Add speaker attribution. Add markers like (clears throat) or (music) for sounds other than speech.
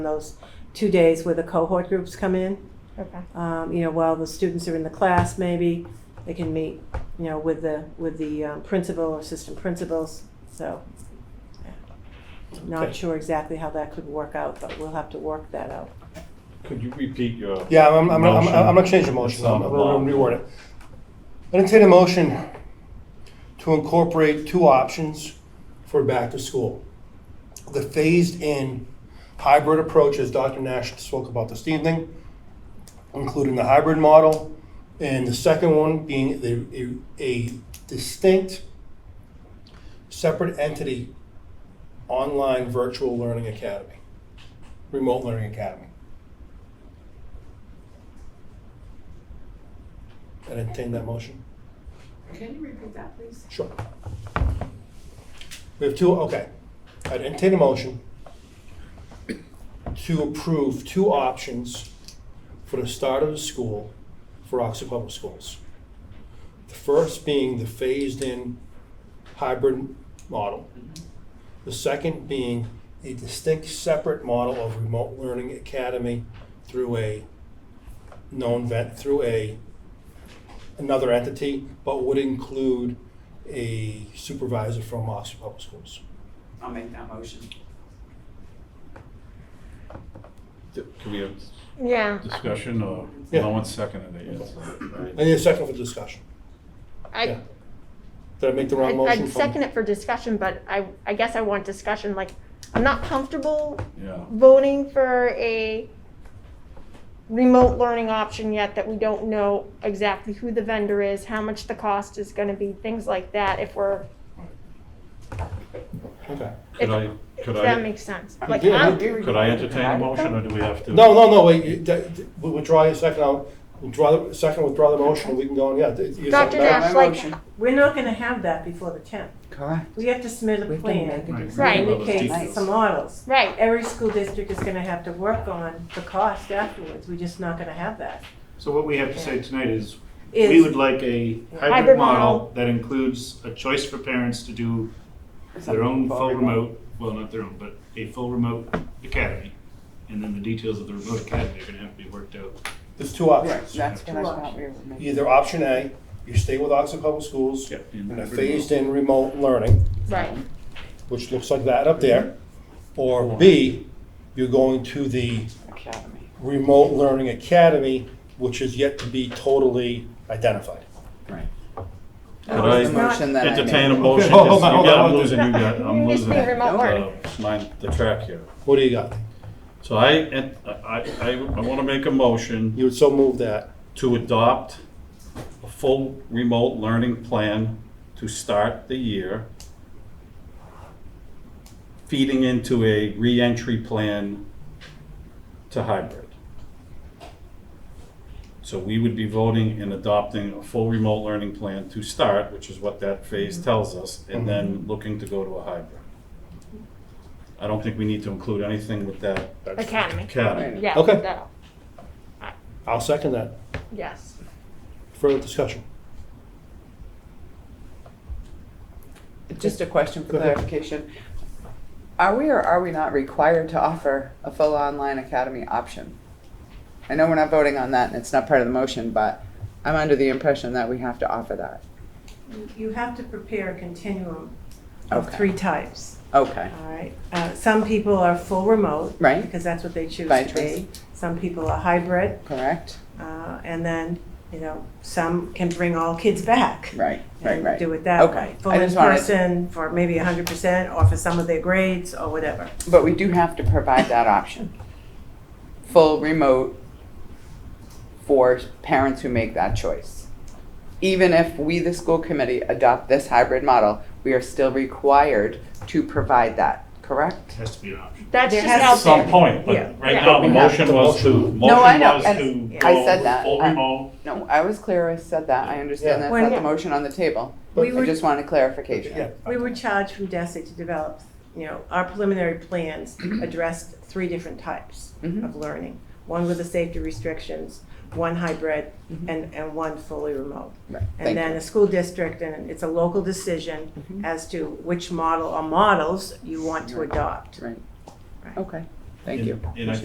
Speaker 1: those two days where the cohort groups come in.
Speaker 2: Okay.
Speaker 1: Um, you know, while the students are in the class, maybe they can meet, you know, with the, with the um, principal or assistant principals, so. yeah.
Speaker 3: Okay.
Speaker 1: Not sure exactly how that could work out, but we'll have to work that out.
Speaker 3: Could you repeat your?
Speaker 4: Yeah, I'm, I'm, I'm, I'm I'm gonna change the
Speaker 3: It's
Speaker 4: motion,
Speaker 3: on
Speaker 4: I'm
Speaker 3: the
Speaker 4: gonna
Speaker 3: bottom.
Speaker 4: reword it. Entertain a motion to incorporate two options for back to school. The phased-in hybrid approach, as Dr. Nash spoke about this evening, including the hybrid model, and the second one being the- a, a distinct, separate entity, online virtual learning academy, remote learning academy. I entertain that motion.
Speaker 5: Can you repeat that, please?
Speaker 4: Sure. We have two, okay. I would entertain a motion to approve two options for the start of the school for Oxford Public Schools. The first being the phased-in hybrid model. The second being a distinct, separate model of remote learning academy through a known vet, through a another entity, but would include a supervisor from Oxford Public Schools.
Speaker 5: I'll make that motion.
Speaker 3: Could we have
Speaker 2: Yeah.
Speaker 3: discussion or,
Speaker 4: Yeah.
Speaker 3: no one seconded it yet.
Speaker 4: I
Speaker 3: so-
Speaker 4: need a second for discussion.
Speaker 2: I,
Speaker 4: Yeah. Did I make the wrong
Speaker 2: I-
Speaker 4: motion?
Speaker 2: I'd
Speaker 4: from-
Speaker 2: second it for discussion, but I, I guess I want discussion, like, I'm not comfortable
Speaker 3: Yeah,
Speaker 2: voting for a remote learning option yet that we don't know exactly who the vendor is, how much the cost is gonna be, things like that, if we're,
Speaker 4: Okay.
Speaker 3: could I,
Speaker 2: if
Speaker 3: could
Speaker 2: that
Speaker 3: I,
Speaker 2: makes sense. Like,
Speaker 4: Yeah,
Speaker 2: I'm-
Speaker 3: could I entertain a motion or do we have to?
Speaker 4: No, no, no, wait, you- that- that- we'll withdraw your second, I'll withdraw, the second, withdraw the motion, and we can go on, yeah. th- your
Speaker 2: Dr.
Speaker 4: second
Speaker 2: Nash.
Speaker 4: back.
Speaker 5: My
Speaker 2: like-
Speaker 5: motion.
Speaker 1: We're not gonna have that before the tenth.
Speaker 6: Correct.
Speaker 1: We have to submit a
Speaker 6: We've got to make
Speaker 1: plan.
Speaker 6: a
Speaker 3: Right.
Speaker 6: decision.
Speaker 2: Right.
Speaker 1: Indicates some models.
Speaker 2: Right,
Speaker 1: Every school district is gonna have to work on the cost afterwards, we're just not gonna have that.
Speaker 7: So what we have to say tonight is, we
Speaker 1: Is-
Speaker 7: would like a
Speaker 2: Hybrid
Speaker 7: hybrid
Speaker 2: model.
Speaker 7: model that includes a choice for parents to do their own full remote, well, not their own, but a full remote academy. And then the details of the remote academy are gonna have to be worked out.
Speaker 4: There's two
Speaker 6: Right,
Speaker 4: options.
Speaker 6: that's what I thought we were making.
Speaker 4: Either option A, you stay with Oxford Public Schools
Speaker 3: Yeah.
Speaker 4: and a phased-in remote learning,
Speaker 2: right.
Speaker 4: which looks like that up there. Or B, you're going to the
Speaker 6: Academy.
Speaker 4: remote learning academy, which is yet to be totally identified.
Speaker 6: Right.
Speaker 3: Could
Speaker 6: That was the
Speaker 3: I
Speaker 6: motion that I
Speaker 3: entertain a
Speaker 6: made.
Speaker 3: motion?
Speaker 4: Okay, hold on,
Speaker 3: You
Speaker 4: hold
Speaker 3: got-
Speaker 4: on,
Speaker 3: I'm
Speaker 4: hold on.
Speaker 3: losing, you got, I'm
Speaker 2: You just
Speaker 3: losing.
Speaker 2: need remote
Speaker 3: uh,
Speaker 2: learning.
Speaker 3: Mind the track here.
Speaker 4: What do you got?
Speaker 3: So I, and I, I, I wanna make a motion
Speaker 4: You would so move that.
Speaker 3: to adopt a full remote learning plan to start the year, feeding into a reentry plan to hybrid. So we would be voting and adopting a full remote learning plan to start, which is what that phase tells us, and then looking to go to a hybrid. I don't think we need to include anything with that
Speaker 2: Academy,
Speaker 3: academy.
Speaker 2: yeah,
Speaker 4: Okay.
Speaker 2: that'll,
Speaker 4: I'll second that.
Speaker 2: yes.
Speaker 4: Further discussion.
Speaker 6: Just a question for
Speaker 4: Go ahead.
Speaker 6: clarification. Are we or are we not required to offer a full online academy option? I know we're not voting on that and it's not part of the motion, but I'm under the impression that we have to offer that.
Speaker 1: You have to prepare a continuum of
Speaker 6: Okay.
Speaker 1: three types,
Speaker 6: Okay,
Speaker 1: all right? Uh, Some people are full remote.
Speaker 6: Right.
Speaker 1: Because that's what they choose
Speaker 6: By
Speaker 1: to
Speaker 6: choice.
Speaker 1: be. Some people are hybrid,
Speaker 6: correct?
Speaker 1: uh, and then, you know, some can bring all kids back.
Speaker 6: Right, right,
Speaker 1: and
Speaker 6: right.
Speaker 1: Do it that
Speaker 6: Okay.
Speaker 1: way.
Speaker 6: I
Speaker 1: Full in
Speaker 6: just wanted-
Speaker 1: person for maybe hundred percent, or for some of their grades, or whatever.
Speaker 6: But we do have to provide that option. Full remote for parents who make that choice. Even if we, the school committee, adopt this hybrid model, we are still required to provide that,
Speaker 7: It
Speaker 6: correct?
Speaker 7: has to be an option.
Speaker 2: That's
Speaker 1: There
Speaker 2: just
Speaker 1: has-
Speaker 3: At
Speaker 2: out
Speaker 3: some
Speaker 2: there.
Speaker 3: point,
Speaker 1: Yeah.
Speaker 3: but right
Speaker 2: Yeah.
Speaker 3: now, the
Speaker 6: We have
Speaker 3: motion
Speaker 4: the
Speaker 3: was to,
Speaker 4: motion.
Speaker 3: motion
Speaker 6: No, I know,
Speaker 3: was
Speaker 6: and
Speaker 3: to
Speaker 1: I
Speaker 3: go
Speaker 6: said
Speaker 3: with
Speaker 6: that.
Speaker 3: full
Speaker 6: I-
Speaker 3: remote.
Speaker 6: No, I was clear, I said that, I understand that's
Speaker 1: Yeah.
Speaker 6: not the motion on the table.
Speaker 4: But-
Speaker 1: We
Speaker 6: I
Speaker 1: were-
Speaker 6: just wanted clarification.
Speaker 1: We were charged from DESI to develop, you know, our preliminary
Speaker 6: (clears throat)
Speaker 1: plans addressed three different types
Speaker 6: Mhm.
Speaker 1: of learning. One with the safety restrictions, one hybrid, and, and one fully remote.
Speaker 6: Mm-hmm.
Speaker 1: And
Speaker 6: Right,
Speaker 1: then
Speaker 6: thank you. Mm-hmm.
Speaker 1: a school district, and it's a local decision as to which model or models you want to
Speaker 6: Right.
Speaker 1: adopt.
Speaker 6: Right, okay.
Speaker 8: Thank
Speaker 3: And-
Speaker 8: you.
Speaker 3: And I